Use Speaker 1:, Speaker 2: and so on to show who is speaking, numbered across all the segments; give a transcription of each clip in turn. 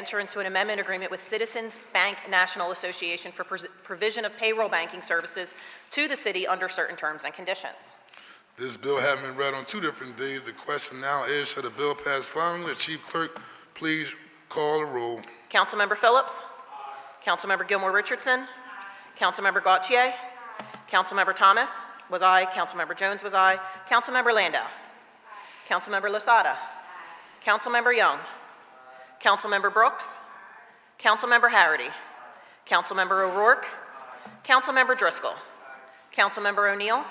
Speaker 1: enter into an amendment agreement with Citizens Bank National Association for pres- provision of payroll banking services to the city under certain terms and conditions.
Speaker 2: This bill having been read on two different days, the question now is, shall the bill pass finally? The chief clerk, please call the roll.
Speaker 1: Councilmember Phillips. Councilmember Gilmore Richardson. Councilmember Gautier. Councilmember Thomas was aye. Councilmember Jones was aye. Councilmember Landau. Councilmember Losada. Councilmember Young. Councilmember Brooks. Councilmember Harity. Councilmember O'Rourke. Councilmember Driscoll. Councilmember O'Neill.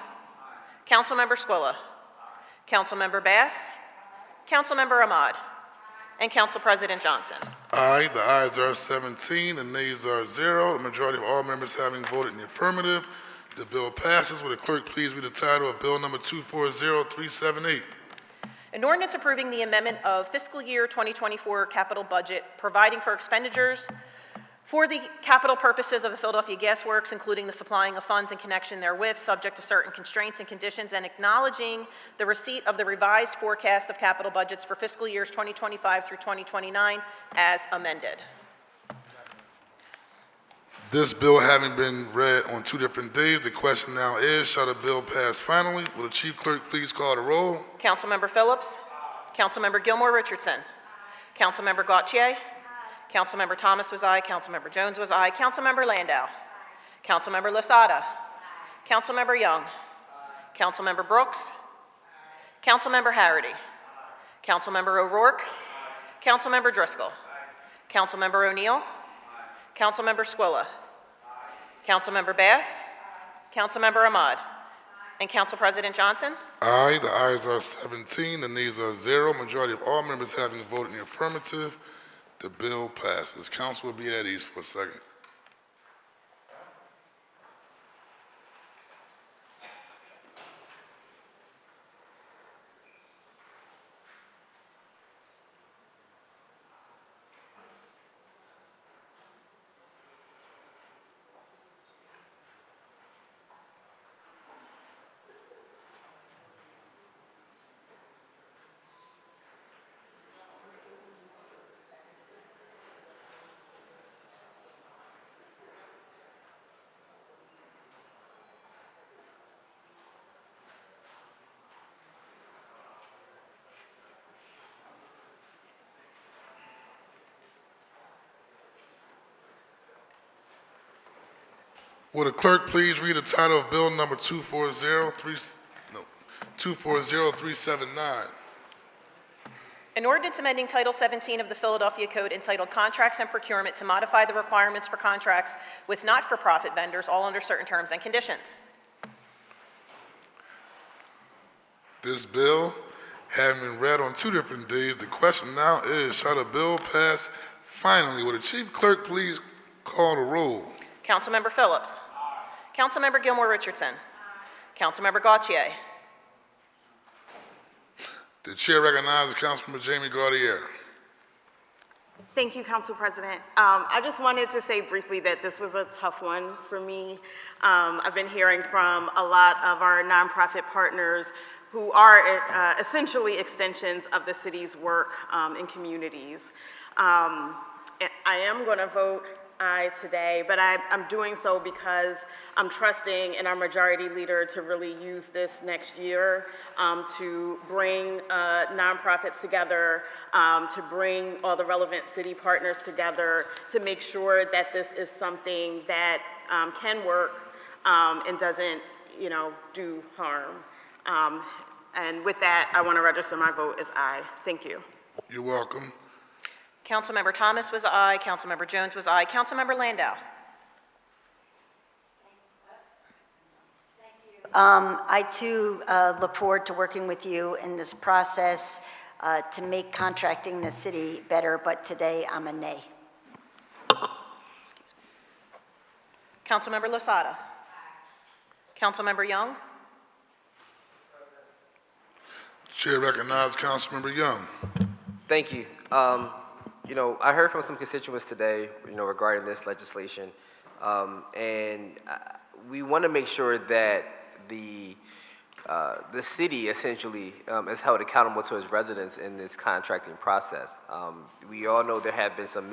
Speaker 1: Councilmember Squilla. Councilmember Bass. Councilmember Ahmad. And Council President Johnson.
Speaker 2: Aye, the ayes are 17, the nays are zero. The majority of all members having voted in the affirmative, the bill passes. Will the clerk please read the title of Bill Number 240378?
Speaker 1: An ordinance approving the amendment of fiscal year 2024 capital budget, providing for expenditures for the capital purposes of the Philadelphia Gas Works, including the supplying of funds in connection therewith, subject to certain constraints and conditions, and acknowledging the receipt of the revised forecast of capital budgets for fiscal years 2025 through 2029 as amended.
Speaker 2: This bill having been read on two different days, the question now is, shall the bill pass finally? Will the chief clerk please call the roll?
Speaker 1: Councilmember Phillips. Councilmember Gilmore Richardson. Councilmember Gautier. Councilmember Thomas was aye. Councilmember Jones was aye. Councilmember Landau. Councilmember Lasada. Councilmember Young. Councilmember Brooks. Councilmember Harity. Councilmember O'Rourke. Councilmember Driscoll. Councilmember O'Neill. Councilmember Squilla. Councilmember Bass. Councilmember Ahmad. And Council President Johnson.
Speaker 2: Aye, the ayes are 17, the nays are zero. Majority of all members having voted in the affirmative, the bill passes. Council will be at ease for a second. Will the clerk please read the title of Bill Number 2403, no, 240379?
Speaker 1: An ordinance amending Title 17 of the Philadelphia Code entitled Contracts and Procurement to modify the requirements for contracts with not-for-profit vendors, all under certain terms and conditions.
Speaker 2: This bill having been read on two different days, the question now is, shall the bill pass finally? Will the chief clerk please call the roll?
Speaker 1: Councilmember Phillips. Councilmember Gilmore Richardson. Councilmember Gautier.
Speaker 2: The chair recognizes Councilmember Jamie Gaudier.
Speaker 3: Thank you, Council President. Um, I just wanted to say briefly that this was a tough one for me. Um, I've been hearing from a lot of our nonprofit partners who are uh, essentially extensions of the city's work um, in communities. Um, I I am going to vote aye today, but I, I'm doing so because I'm trusting in our majority leader to really use this next year um, to bring uh, nonprofits together, um, to bring all the relevant city partners together, to make sure that this is something that um, can work um, and doesn't, you know, do harm. Um, and with that, I want to register my vote as aye. Thank you.
Speaker 2: You're welcome.
Speaker 1: Councilmember Thomas was aye. Councilmember Jones was aye. Councilmember Landau.
Speaker 4: Um, I too uh, look forward to working with you in this process uh, to make contracting the city better, but today I'm a nay.
Speaker 1: Councilmember Losada. Councilmember Young.
Speaker 2: Chair recognizes Councilmember Young.
Speaker 5: Thank you. Um, you know, I heard from some constituents today, you know, regarding this legislation, um, and uh, we want to make sure that the uh, the city essentially um, is held accountable to its residents in this contracting process. Um, we all know there have been some